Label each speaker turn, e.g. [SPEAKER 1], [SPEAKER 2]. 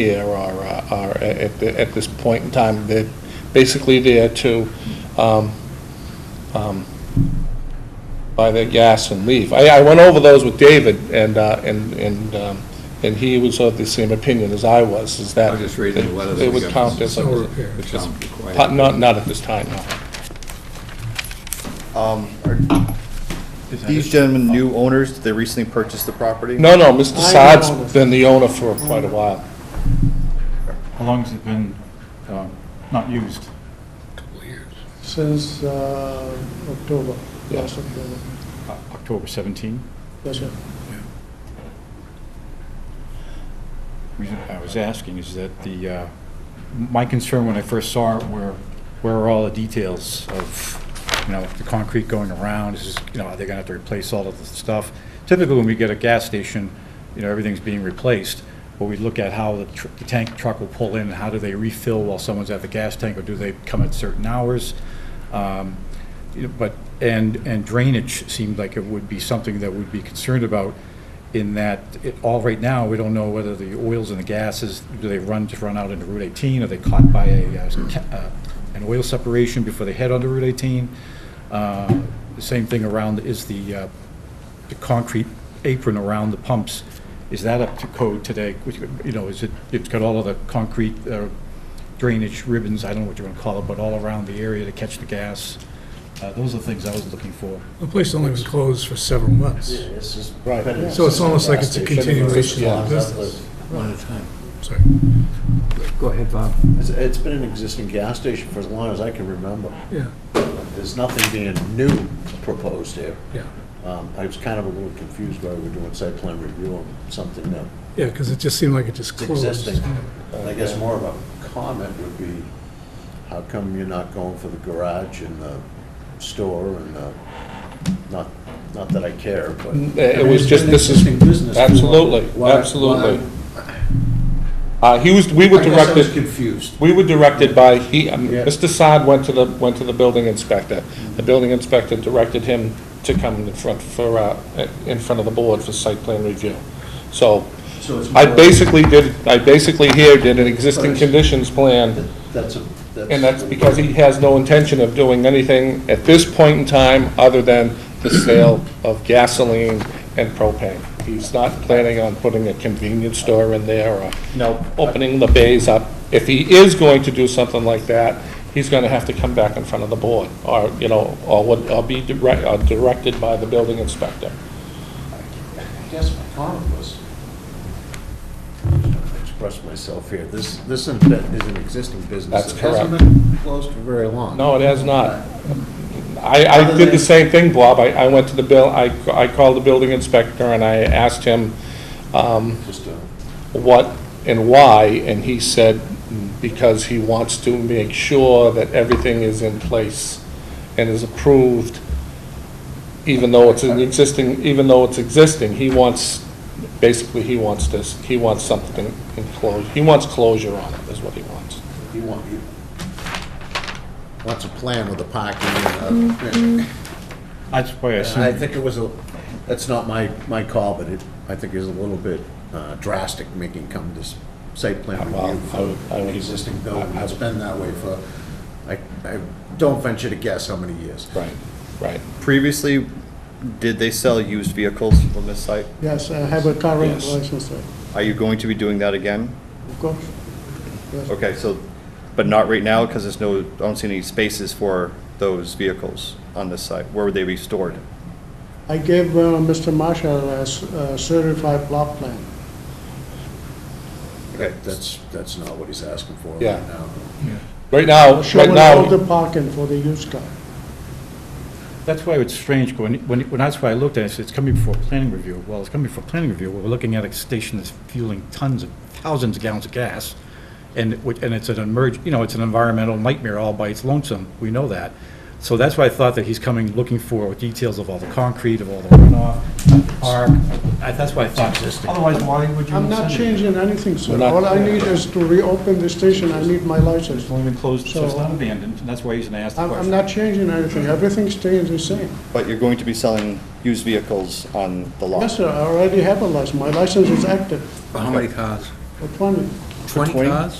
[SPEAKER 1] here are, uh, are at, the- at this point in time. They're basically there to, um, um, buy their gas and leave. I, I went over those with David, and, uh, and, and, um, and he was of the same opinion as I was, is that.
[SPEAKER 2] I was just reading the letters
[SPEAKER 1] It
[SPEAKER 2] we
[SPEAKER 1] would
[SPEAKER 2] got.
[SPEAKER 1] count as. a-
[SPEAKER 3] Snow repair.
[SPEAKER 2] Which is required.
[SPEAKER 1] Pa- Not, not at this time, no.
[SPEAKER 4] Um, are These gentlemen new owners, did they recently purchase the property?
[SPEAKER 1] No, no, Mr.
[SPEAKER 3] I know.
[SPEAKER 1] Saad's been the owner for quite a while.
[SPEAKER 5] How long has it been uh, not used?
[SPEAKER 3] Since uh, October, last October.
[SPEAKER 4] Uh,
[SPEAKER 5] O- October 17?
[SPEAKER 3] Yes, sir.
[SPEAKER 5] reason I was asking is that the, uh, my concern when I first saw it were, where are all the details of, you know, the concrete going around, is, this- you know, are they gonna have to replace all of the stuff? Typically, when we get a gas station, you know, everything's being replaced, but we look at how the tr- the tank truck will pull in, how do they refill while someone's at the gas tank, or do they come at certain hours? Um, you know, But, and, and drainage seemed like it would be something that we'd be concerned about in that, it, all right now, we don't know whether the oils and the gases, do they run, just run out into Route 18? Are they caught by a, uh, ca- uh, an oil separation before they head onto Route 18? Uh, The same thing around, is the, uh, the concrete apron around the pumps, is that up to code today? Which, You know, is it, it's got all of the concrete uh, drainage ribbons, I don't know what you want to call it, but all around the area to catch the gas. Uh, Those are the things I was looking for.
[SPEAKER 6] The place only was closed for several months.
[SPEAKER 7] This is.
[SPEAKER 1] Right.
[SPEAKER 7] better
[SPEAKER 6] So it's almost like
[SPEAKER 7] than
[SPEAKER 6] it's a
[SPEAKER 7] gas station.
[SPEAKER 6] continuation
[SPEAKER 1] Yeah.
[SPEAKER 6] of business.
[SPEAKER 7] One at a time.
[SPEAKER 6] Sorry.
[SPEAKER 2] Go ahead, Bob.
[SPEAKER 7] It's, it's been an existing gas station for as long as I can remember.
[SPEAKER 6] Yeah,
[SPEAKER 7] There's nothing being new proposed here.
[SPEAKER 6] yeah.
[SPEAKER 7] Um, I was kind of a little confused why we're doing site plan review on something that
[SPEAKER 6] Yeah, because it just seemed like it just
[SPEAKER 7] is
[SPEAKER 6] closed.
[SPEAKER 7] existing. I guess more of a comment would be, how come you're not going for the garage and the store and the, not, not that I care, but.
[SPEAKER 1] It was just, this is,
[SPEAKER 2] Existing business.
[SPEAKER 1] absolutely,
[SPEAKER 2] Why-
[SPEAKER 1] absolutely.
[SPEAKER 2] why-
[SPEAKER 1] Uh, he was, we were
[SPEAKER 2] I guess I was
[SPEAKER 1] directed,
[SPEAKER 2] confused.
[SPEAKER 1] we were directed by, he, um,
[SPEAKER 2] Yeah.
[SPEAKER 1] Mr. Saad went to the, went to the building inspector. The building inspector directed him to come in front for, uh, in front of the board for site plan review. So,
[SPEAKER 7] So it's
[SPEAKER 1] I
[SPEAKER 7] more-
[SPEAKER 1] basically did, I basically here did an existing
[SPEAKER 7] Right.
[SPEAKER 1] conditions plan,
[SPEAKER 7] that- That's a, that's.
[SPEAKER 1] and that's because he has no intention of doing anything at this point in time other than the sale of gasoline and propane. He's not planning on putting a convenience store in there or
[SPEAKER 4] No.
[SPEAKER 1] opening the bays up. If he is going to do something like that, he's gonna have to come back in front of the board, or, you know, or would, or be direct, or directed by the building inspector.
[SPEAKER 7] I guess my comment was, I'm trying to express myself here, this, this in fact is an existing
[SPEAKER 1] That's
[SPEAKER 7] business. It hasn't been closed for very long.
[SPEAKER 1] No, it has not. I, I
[SPEAKER 7] Other
[SPEAKER 1] did the
[SPEAKER 7] than-
[SPEAKER 1] same thing, Bob. I, I went to the bill, I, I called the building inspector and I asked him, um,
[SPEAKER 7] Just a,
[SPEAKER 1] what and why, and he said, because he wants to make sure that everything is in place and is approved, even though it's an existing, even though it's existing, he wants, basically, he wants this, he wants something enclosed, he wants closure on it, is what he wants.
[SPEAKER 7] you want, you, wants a plan with a parking uh, and a,
[SPEAKER 5] That's why I assumed.
[SPEAKER 7] I think it was a, that's not my, my call, but it, I think is a little bit uh, drastic making come this site plan
[SPEAKER 1] Well,
[SPEAKER 7] review
[SPEAKER 1] I would- I
[SPEAKER 7] for
[SPEAKER 1] would-
[SPEAKER 7] an existing building. It's been that way for, I, I don't venture to guess how many years.
[SPEAKER 1] Right. Right.
[SPEAKER 4] Previously, did they sell used vehicles on this site?
[SPEAKER 3] Yes, I have a car rental
[SPEAKER 1] Yes.
[SPEAKER 3] license, sir.
[SPEAKER 4] Are you going to be doing that again?
[SPEAKER 3] Of course. Yes.
[SPEAKER 4] Okay, so, but not right now, because there's no, I don't see any spaces for those vehicles on this site. Where would they be stored?
[SPEAKER 3] I gave uh, Mr. Marshall a s- a certified plot plan.
[SPEAKER 7] That's, that's not what he's asking for right
[SPEAKER 1] Yeah.
[SPEAKER 7] now.
[SPEAKER 1] Right now, right
[SPEAKER 3] Showing all
[SPEAKER 1] now,
[SPEAKER 3] the parking for the used car.
[SPEAKER 5] That's why it's strange, when, when, when that's why I looked at it, I said, it's coming before planning review. Well, it's coming before planning review, we're looking at a station that's fueling tons of, thousands of gallons of gas, and, it would- and it's an emerg, you know, it's an environmental nightmare all by its lonesome, we know that. So that's why I thought that he's coming, looking for details of all the concrete, of all the runoff, the park, I- that's why I thought. Otherwise, why would you?
[SPEAKER 3] I'm not
[SPEAKER 5] send it?
[SPEAKER 3] changing anything,
[SPEAKER 1] We're
[SPEAKER 3] sir.
[SPEAKER 1] not-
[SPEAKER 3] All I need is to reopen the station, I need my license.
[SPEAKER 5] It's only been closed, so it's
[SPEAKER 3] So- um,
[SPEAKER 5] not abandoned, and that's why he's gonna ask the
[SPEAKER 3] I'm, I'm
[SPEAKER 5] question.
[SPEAKER 3] not changing anything, everything stays the same.
[SPEAKER 4] But you're going to be selling used vehicles on the lot?
[SPEAKER 3] Yes, sir, I already have a license, my license is active
[SPEAKER 2] How many cars?
[SPEAKER 3] for 20.
[SPEAKER 2] Twenty
[SPEAKER 1] between-
[SPEAKER 2] cars?